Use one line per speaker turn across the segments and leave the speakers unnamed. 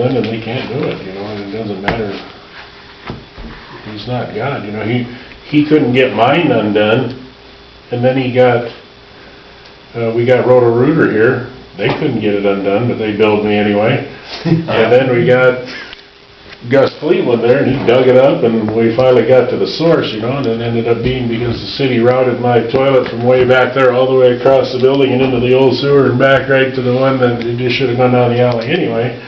done and they can't do it, you know, and it doesn't matter. He's not God, you know, he, he couldn't get mine undone, and then he got, uh, we got Roto-Rooter here, they couldn't get it undone, but they billed me anyway. And then we got Gus Cleveland there, and he dug it up, and we finally got to the source, you know, and it ended up being because the city routed my toilet from way back there all the way across the building and into the old sewer and back right to the one that it just should've gone down the alley anyway.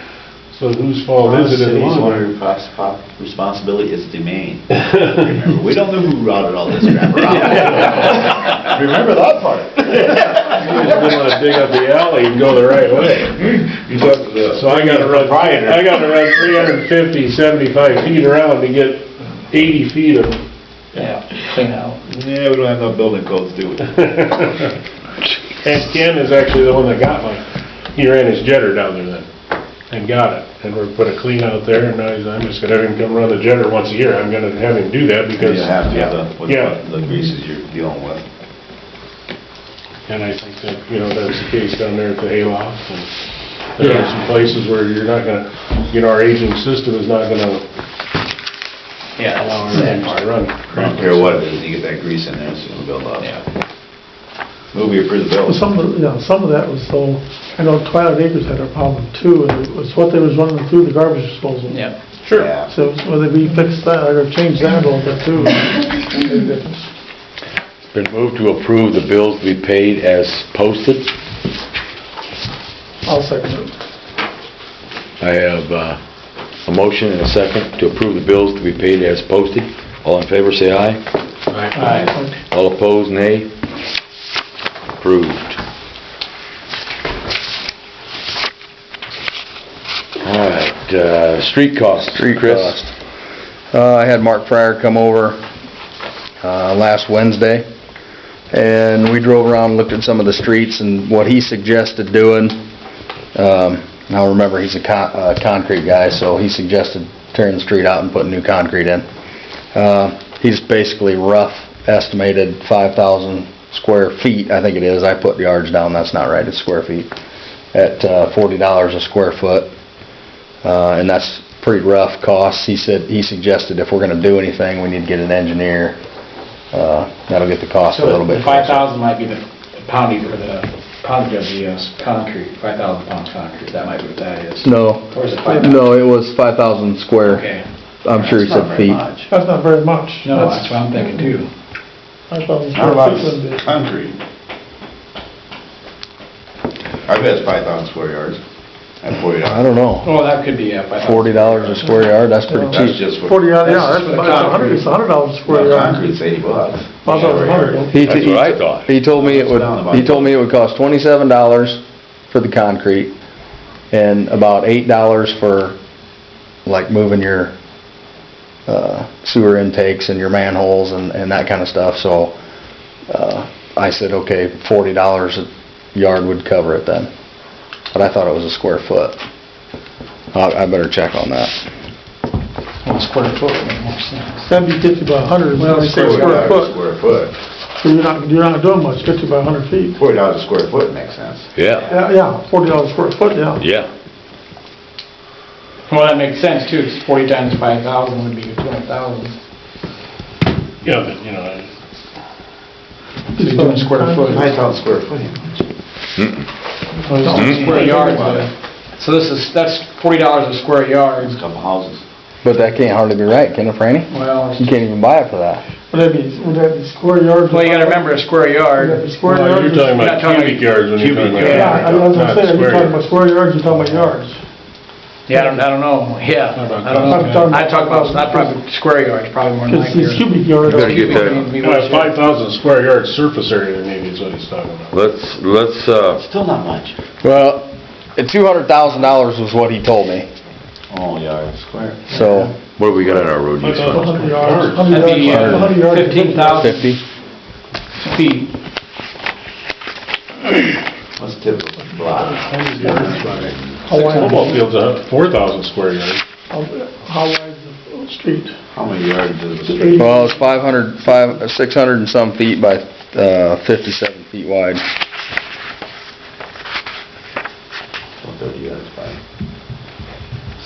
So whose fault is it in the
City's
long run?
one respons- responsibility is domain. Remember, We don't know who routed all this crap around. Remember that part.
You just didn't wanna dig up the alley and go the right way. So I gotta run, I gotta run 350, 75 feet around to get 80 feet of
Yeah,
clean out.
Yeah, we don't have no building codes, do we?
And Ken is actually the one that got mine. He ran his jetter down there then and got it. And we put a clean out there and now he's, I'm just gonna have him come run the jetter once a year. I'm gonna have him do that because.
You have to, have the- with
Yeah.
the greases you're dealing with.
And I think that, you know, that's the case down there at the hayloft and there are some places where you're not gonna, you know, our aging system is not gonna
Yeah.
allow our things to run.
I don't care what it is, you get that grease in there, it's gonna build up. Move your prison bill.
Well, Some of, the- yeah, some of that was so, I know Twilight Acres had a problem too, and it was what they was running through the garbage disposal.
Yeah.
Sure.
Yeah.
So whether we fix that or change that a little bit too.
Been moved to approve the bills to be paid as posted.
I'll second it.
I have uh, a motion and a second to approve the bills to be paid as posted. All in favor, say aye. All opposed, nay. Approved. All right, uh, street costs.
Street
Chris.
cost. Uh, I had Mark Pryor come over, uh, last Wednesday, and we drove around and looked at some of the streets and what he suggested doing. Um, now remember, he's a con, uh, concrete guy, so he suggested tearing the street out and putting new concrete in. Uh, he's basically rough estimated five thousand square feet, I think it is. I put yards down, that's not right, it's square feet, at, uh, forty dollars a square foot. Uh, and that's pretty rough costs. He said, he suggested if we're gonna do anything, we need to get an engineer. Uh, that'll get the cost a
So
little
the
bit
five
closer.
thousand might be the poundage or the poundage of the uh, concrete, five thousand pounds concrete, that might be what that is.
No,
Or is it five thousand?
no, it was five thousand square.
Okay.
I'm sure he
It's not
said
very
feet.
much.
That's not very much.
No, that's what I'm thinking too.
I thought it was
Not a lot
pretty
of
good.
concrete. I bet it's five thousand square yards, uh, at forty
I
dollars.
don't know.
Well, that could be, yeah, five thousand.
Forty dollars a square yard, that's pretty
Yeah.
That's
cheap.
just what,
Uh, Forty, yeah,
That's
yeah, that's,
just for the
about a hundred,
concrete.
it's a hundred dollars a square
well,
yard.
concrete's eighty bucks. Square
Well, that's a hundred,
yard.
though.
He-
That's
he-
what I thought.
He told me it would,
Down about-
he told me it would cost twenty-seven dollars for the concrete and about eight dollars for like moving your, uh, sewer intakes and your manholes and, and that kinda stuff, so, uh, I said, okay, forty dollars a yard would cover it then. But I thought it was a square foot. I, I better check on that.
One square foot would make more sense.
That'd be fifty by a hundred,
Well,
it's
Forty
square
dollars a
foot.
square foot.
So you're not, you're not doing much, fifty by a hundred feet.
Forty dollars a square foot makes sense.
Yeah,
Yeah, yeah, forty dollars a square foot, yeah.
yeah.
Well, that makes sense too, 'cause forty times five thousand would be twenty thousand.
Yeah, but, you know, I-
So you're doing square foot.
Nine thousand square foot, ain't much. Hmm.
It's Square yards, but- so this is, that's forty dollars a square yard.
It's a couple houses.
But that can't hardly be right, can it, Franny?
Well, it's-
You can't even buy it for that.
Would that be, would that be square yards?
well, you gotta remember a square yard.
Would that be square
Well,
yards?
you're
or-
talking
Not
about
talking
cubic yards when you're talking
cubic,
about.
Yeah, I was
not
gonna say,
square
you're talking
yards.
about square yards, you're talking about yards.
Yeah, I don't, I don't know, yeah, I don't
I'm
know.
talking-
I talk about, I probably, square yards, probably more than
Because these
likely.
cubic yards.
Better get that.
Yeah, Uh, five thousand square yard surface area maybe is what he's talking about.
Let's, let's, uh,
Still not much.
Well, two hundred thousand dollars was what he told me,
Oh, yards square.
so.
what do we got on our road
Five
use
thousand
fund?
100
square
yards,
yards.
100
That'd be uh,
yards, 100 yards.
fifteen thousand
Fifty?
feet.
What's typical block?
How wide,
Football field's a four thousand square yards.
how how wide is the street?
How many yards does the
Eighty.
street?
Well, it's five hundred, five, six hundred and some feet by, uh, fifty-seven feet wide.
Thirty yards by.